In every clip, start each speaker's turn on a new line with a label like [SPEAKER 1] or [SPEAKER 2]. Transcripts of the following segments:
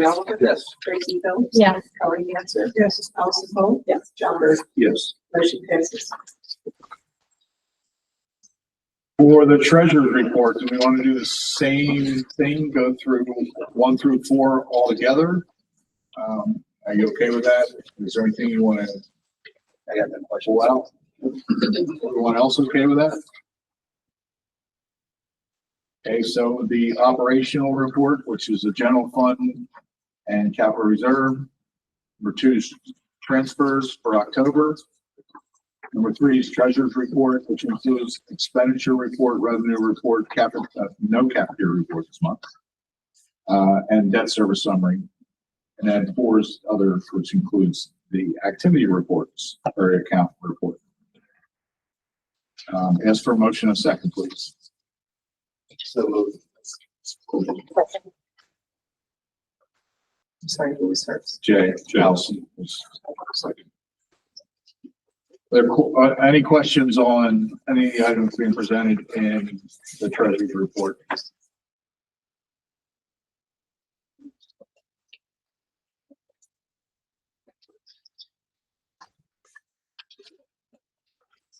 [SPEAKER 1] Melvin?
[SPEAKER 2] Yes.
[SPEAKER 1] Tracy Phillips?
[SPEAKER 3] Yes.
[SPEAKER 1] Howard Hansel? Yes. Allison Paul? Yes. John Burns?
[SPEAKER 2] Yes.
[SPEAKER 1] Motion passes.
[SPEAKER 2] For the treasurer's report, do we want to do the same thing, go through one through four altogether? Um, are you okay with that? Is there anything you want to? I got that question. Well, everyone else okay with that? Okay, so the operational report, which is the general fund and capital reserve. Number two is transfers for October. Number three is treasurer's report, which includes expenditure report, revenue report, capital, uh, no cap year report this month. Uh, and debt service summary. And then four is other, which includes the activity reports or account report. Um, ask for a motion in a second, please. So
[SPEAKER 1] I'm sorry, who was first?
[SPEAKER 2] Jay, Allison was second. There, uh, any questions on any items being presented in the treasury report?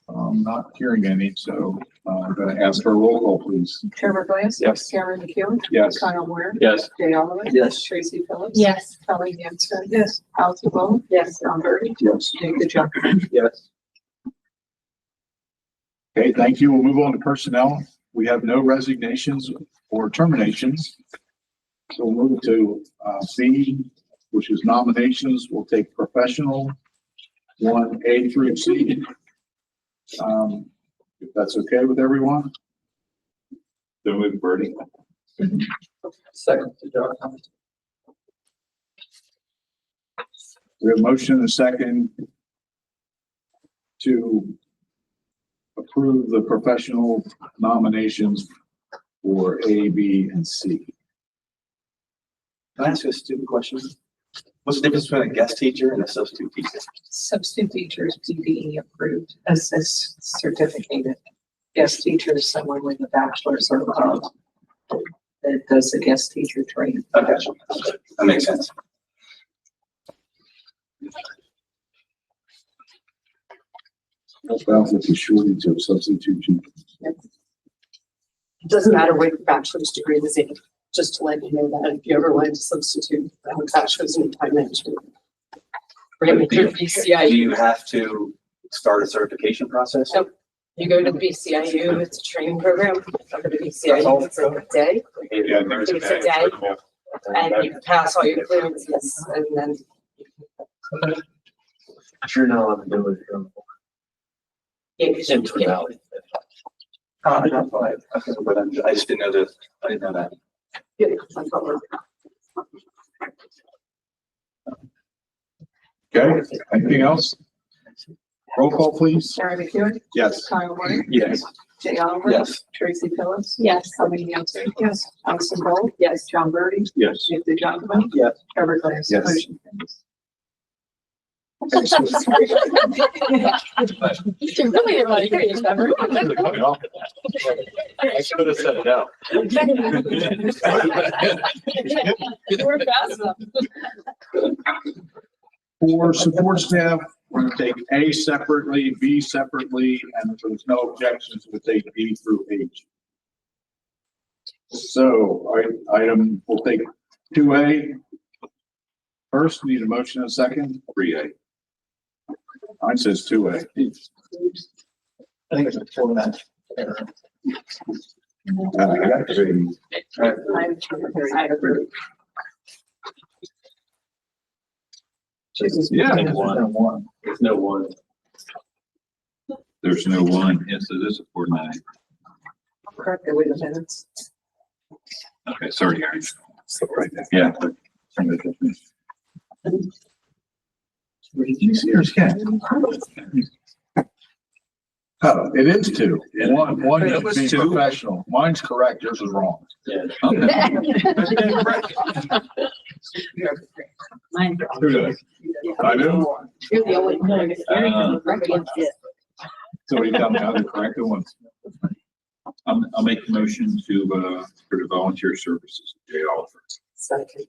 [SPEAKER 2] I'm not hearing any, so uh, I'm going to ask for a roll call, please.
[SPEAKER 1] Trevor Glass?
[SPEAKER 2] Yes.
[SPEAKER 1] Cameron McEwen?
[SPEAKER 2] Yes.
[SPEAKER 1] Kyle Moore?
[SPEAKER 2] Yes.
[SPEAKER 1] Jay Oliver?
[SPEAKER 2] Yes.
[SPEAKER 1] Tracy Phillips?
[SPEAKER 3] Yes.
[SPEAKER 1] Howard Hansel? Yes. Allison Paul? Yes. John Burns?
[SPEAKER 2] Yes.
[SPEAKER 1] Nick DeJonge?
[SPEAKER 2] Yes. Okay, thank you. We'll move on to personnel. We have no resignations or terminations. So we'll move to uh, B, which is nominations. We'll take professional, one A through C. Um, If that's okay with everyone? So move, Birdie.
[SPEAKER 4] Second to Doug Thomas.
[SPEAKER 2] We have a motion and a second to approve the professional nominations for A, B, and C.
[SPEAKER 4] Can I ask you a stupid question? What's the difference between a guest teacher and a substitute teacher?
[SPEAKER 1] Substitute teachers PBE approved, assist certificated. Guest teacher is someone with a bachelor's or above that does the guest teacher training.
[SPEAKER 4] Okay, that makes sense.
[SPEAKER 2] That's about the shortage of substitute teachers.
[SPEAKER 5] It doesn't matter what your bachelor's degree is in, just to let you know that if you ever wanted to substitute, I have a bachelor's in time management. Or you go to
[SPEAKER 4] Do
[SPEAKER 5] BCIU,
[SPEAKER 4] you have to start a certification process?
[SPEAKER 5] Nope. you go to BCIU, it's a training program, go to BCIU, it's like a day,
[SPEAKER 4] Yeah,
[SPEAKER 5] it's a day. And you pass all your clearances and then
[SPEAKER 6] Sure now I'm doing it from
[SPEAKER 5] you can.
[SPEAKER 6] Central Valley.
[SPEAKER 4] Uh, that's why, okay, but I'm- I just didn't know this, I didn't know that.
[SPEAKER 5] get it, like, over.
[SPEAKER 2] Okay, anything else? Roll call, please.
[SPEAKER 1] Sarah McEwen?
[SPEAKER 2] Yes.
[SPEAKER 1] Kyle Moore?
[SPEAKER 2] Yes.
[SPEAKER 1] Jay Oliver?
[SPEAKER 4] Yes,
[SPEAKER 1] Tracy Phillips?
[SPEAKER 3] Yes.
[SPEAKER 1] Howard Hansel? Yes. Allison Paul?
[SPEAKER 5] Yes.
[SPEAKER 1] John Burns?
[SPEAKER 2] Yes.
[SPEAKER 1] Nick DeJonge?
[SPEAKER 4] Yes.
[SPEAKER 1] Trevor Glass?
[SPEAKER 2] Yes.
[SPEAKER 1] Motion carries.
[SPEAKER 3] You really didn't want to hear you, Trevor.
[SPEAKER 6] I should have said it out.
[SPEAKER 3] You were fast enough.
[SPEAKER 2] For support staff, we're gonna take A separately, B separately, and if there's no objections, we'll take B through H. So, I, item, we'll take two A. First, need a motion and a second. Three A. Mine says two A.
[SPEAKER 4] I think it's a format.
[SPEAKER 2] Uh,
[SPEAKER 1] I'm Trevor Glass. I approve.
[SPEAKER 2] Yeah.
[SPEAKER 6] There's one. There's no one.
[SPEAKER 7] There's no one, yes, it is a four nine.
[SPEAKER 1] Correct, wait a minute.
[SPEAKER 7] Okay, sorry, Aaron.
[SPEAKER 2] Right there.
[SPEAKER 7] Yeah.
[SPEAKER 2] You see her scan? Oh, it is two. One, one
[SPEAKER 4] It
[SPEAKER 2] is
[SPEAKER 4] was
[SPEAKER 2] being
[SPEAKER 4] two.
[SPEAKER 2] professional. Mine's correct, yours is wrong.
[SPEAKER 6] Yeah.
[SPEAKER 7] Okay.
[SPEAKER 3] Mine.
[SPEAKER 2] Who does? I do.
[SPEAKER 3] You're the only one.
[SPEAKER 7] Uh,
[SPEAKER 2] So we got the other corrected ones.
[SPEAKER 7] I'm, I'll make the motion to, uh, for the volunteer services, Jay Oliver.
[SPEAKER 5] Second.